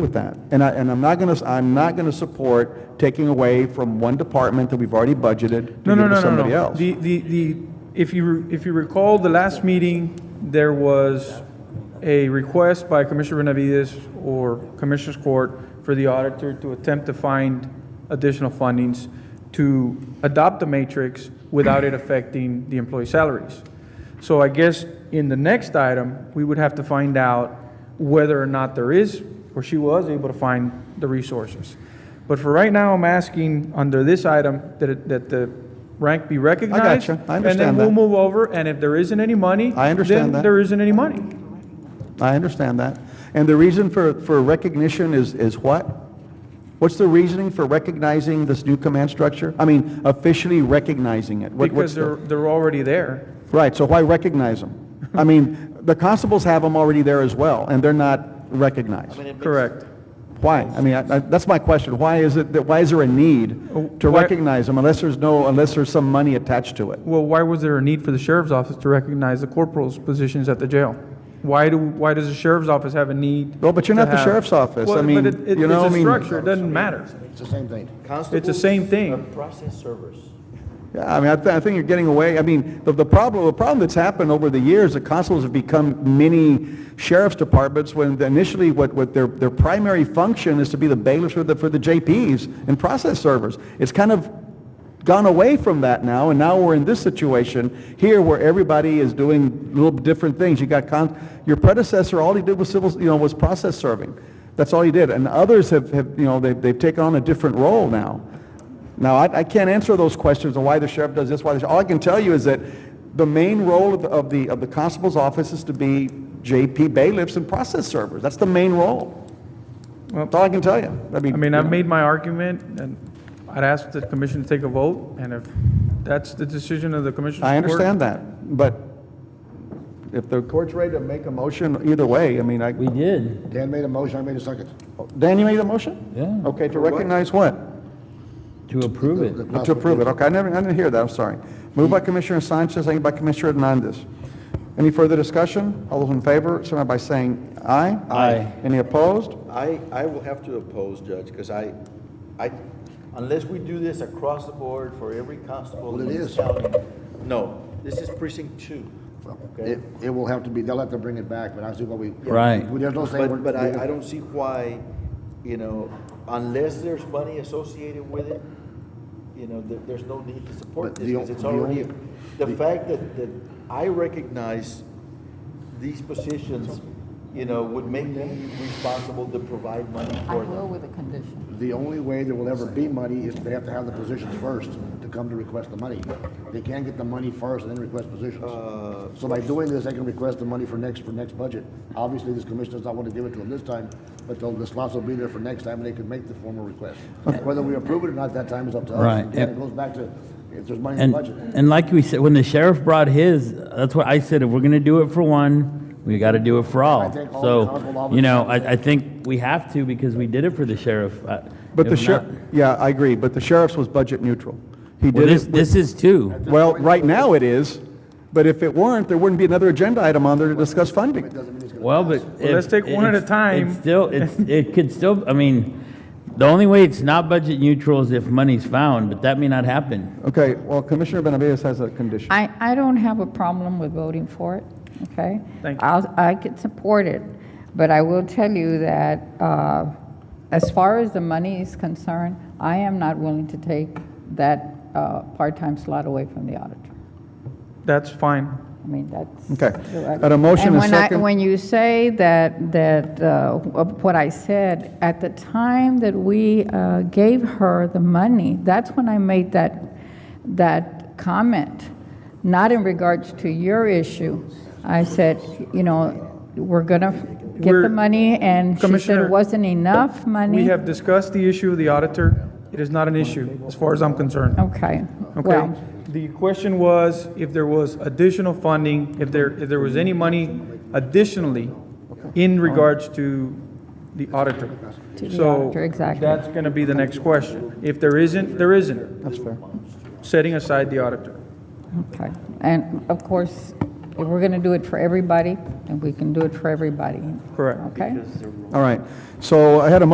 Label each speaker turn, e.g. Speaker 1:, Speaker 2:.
Speaker 1: with that. And I, and I'm not gonna, I'm not gonna support taking away from one department that we've already budgeted to give to
Speaker 2: No, no, no, no,
Speaker 1: somebody
Speaker 2: no.
Speaker 1: else.
Speaker 2: The, the, the, if you, re- if you recall, the last meeting, there was a request by Commissioner Benavides or Commissioner's Court for the auditor to attempt to find additional fundings to adopt the matrix without it affecting the employee salaries. So I guess in the next item, we would have to find out whether or not there is, or she was able to find the resources. But for right now, I'm asking under this item that, it- that the rank be recognized.
Speaker 1: I
Speaker 2: And then
Speaker 1: understand
Speaker 2: we'll
Speaker 1: that.
Speaker 2: move over, and if there isn't any money.
Speaker 1: I understand
Speaker 2: then
Speaker 1: that.
Speaker 2: there isn't any money.
Speaker 1: I understand that. And the reason for, for recognition is, is what? What's the reasoning for recognizing this new command structure? I mean, officially recognizing it? What- what's
Speaker 2: Because
Speaker 1: the-
Speaker 2: they're, they're already there.
Speaker 1: Right, so why recognize them? I mean, the constables have them already there as well, and they're not recognized.
Speaker 2: Correct.
Speaker 1: Why? I mean, I- I- that's my question. Why is it, that? why is there a need to
Speaker 2: Oh, Why-
Speaker 1: recognize them unless there's no, unless there's some money attached to it?
Speaker 2: Well, why was there a need for the sheriff's office to recognize the corporal's positions at the jail? Why do, why does the sheriff's office have a need?
Speaker 1: Well, but you're not
Speaker 2: to
Speaker 1: the
Speaker 2: have-
Speaker 1: sheriff's office. I
Speaker 2: Well, but
Speaker 1: mean,
Speaker 2: it- it-
Speaker 1: you know, I
Speaker 2: It's a
Speaker 1: mean-
Speaker 2: structure, it doesn't matter.
Speaker 3: It's the same thing.
Speaker 2: It's the same thing.
Speaker 4: Process servers.
Speaker 1: Yeah, I mean, I, th- I think you're getting away. I mean, the, the problem, the problem that's happened over the years, the constables have become mini sheriff's departments when initially what, what their, their primary function is to be the bailiffs for the, for the JPs and process servers. It's kind of gone away from that now, and now we're in this situation here where everybody is doing little different things. You got con, your predecessor, all he did was civil, you know, was process serving. That's all he did. And others have, have you know, they've, they've taken on a different role now. Now, I, I can't answer those questions on why the sheriff does this, why the, all I can tell you is that the main role of the, of the, of the constable's office is to be JP bailiffs and process servers. That's the main role.
Speaker 2: Well-
Speaker 1: That's all I can tell you. I mean,
Speaker 2: I mean,
Speaker 1: you
Speaker 2: I've
Speaker 1: know.
Speaker 2: made my argument, and I'd ask the commission to take a vote, and if that's the decision of the commission.
Speaker 1: I understand that, but if the court's ready to make a motion, either way, I mean, I,
Speaker 4: We did.
Speaker 3: Dan made a motion, I made a second.
Speaker 1: Dan, you made the motion?
Speaker 4: Yeah.
Speaker 1: Okay, to recognize what?
Speaker 4: To approve it.
Speaker 1: To approve it, okay, I never, I didn't hear that, I'm sorry. Moved by Commissioner Sanchez, seconded by Commissioner Hernandez. Any further discussion? All those in favor, signify by saying aye.
Speaker 4: Aye.
Speaker 1: Any opposed?
Speaker 5: I, I will have to oppose, Judge, because I, I, unless we do this across the board for every constable.
Speaker 3: Well, it
Speaker 5: in the
Speaker 3: is.
Speaker 5: county, No, this is precinct two. Okay.
Speaker 3: It, it will have to be, they'll have to bring it back, but I see what we.
Speaker 4: Right.
Speaker 3: We- There's no saying.
Speaker 5: But, but I, I don't see why, you know, unless there's money associated with it, you know, there, there's no need to support
Speaker 3: But
Speaker 5: this,
Speaker 3: the o-
Speaker 5: because it's
Speaker 3: the
Speaker 5: already,
Speaker 3: only-
Speaker 5: the fact that, that I recognize these positions, you know, would make me responsible to provide money
Speaker 6: I
Speaker 5: for them.
Speaker 6: will with a condition.
Speaker 3: The only way there will ever be money is they have to have the positions first to come to request the money. They can't get the money first and then request positions. So by doing this, they can request the money for next, for next budget. Obviously, this commission does not want to give it to them this time, but they'll- the slots will be there for next time and they can make the formal request. Whether we approve it or not, that time is up to us.
Speaker 4: Right.
Speaker 3: Again, it goes back to, if there's money in
Speaker 7: And,
Speaker 3: the budget.
Speaker 7: and like we said, when the sheriff brought his, that's what I said, if we're gonna do it for one, we gotta do it for all.
Speaker 3: think all the council
Speaker 7: So,
Speaker 3: officers-
Speaker 7: you know, I, I think we have to because we did it for the sheriff. uh,
Speaker 1: But the
Speaker 7: if
Speaker 1: sheriff,
Speaker 7: not-
Speaker 1: yeah, I agree, but the sheriff's was budget neutral. He
Speaker 7: Well,
Speaker 1: did
Speaker 7: this,
Speaker 1: it, with-
Speaker 7: this is too.
Speaker 1: well, right now it is, but if it weren't, there wouldn't be another agenda item on there to discuss funding.
Speaker 7: Well, but. if-
Speaker 2: let's take one at a
Speaker 7: it's-
Speaker 2: time.
Speaker 7: It's still, it's, it could still, I mean, the only way it's not budget neutral is if money's found, but that may not happen.
Speaker 1: Okay, well, Commissioner Benavides has a condition.
Speaker 6: I, I don't have a problem with voting for it, okay?
Speaker 2: Thank you.
Speaker 6: I'll, I could support it, but I will tell you that, uh, as far as the money is concerned, I am not willing to take that, uh, part-time slot away from the auditor.
Speaker 2: That's fine.
Speaker 6: I mean, that's.
Speaker 1: Okay. Got a motion and
Speaker 6: when I-
Speaker 1: second.
Speaker 6: When you say that, that, uh, of what I said, at the time that we uh, gave her the money, that's when I made that, that comment, not in regards to your issue. I said, you know, we're gonna get
Speaker 2: We're-
Speaker 6: the money, and she said
Speaker 2: Commissioner,
Speaker 6: it wasn't enough money.
Speaker 2: We have discussed the issue of the auditor. It is not an issue, as far as I'm concerned.
Speaker 6: Okay,
Speaker 2: Okay,
Speaker 6: well,
Speaker 2: the question was if there was additional funding, if there, if there was any money additionally in regards to the auditor.
Speaker 6: To the
Speaker 2: So
Speaker 6: auditor, exactly.
Speaker 2: That's going to be the next question. If there isn't, there isn't,
Speaker 1: That's fair.
Speaker 2: setting aside the auditor.
Speaker 6: okay. And of course, If we're going to do it for everybody, then we can do it for everybody.
Speaker 2: Correct.
Speaker 6: Okay?
Speaker 1: All right. So I had a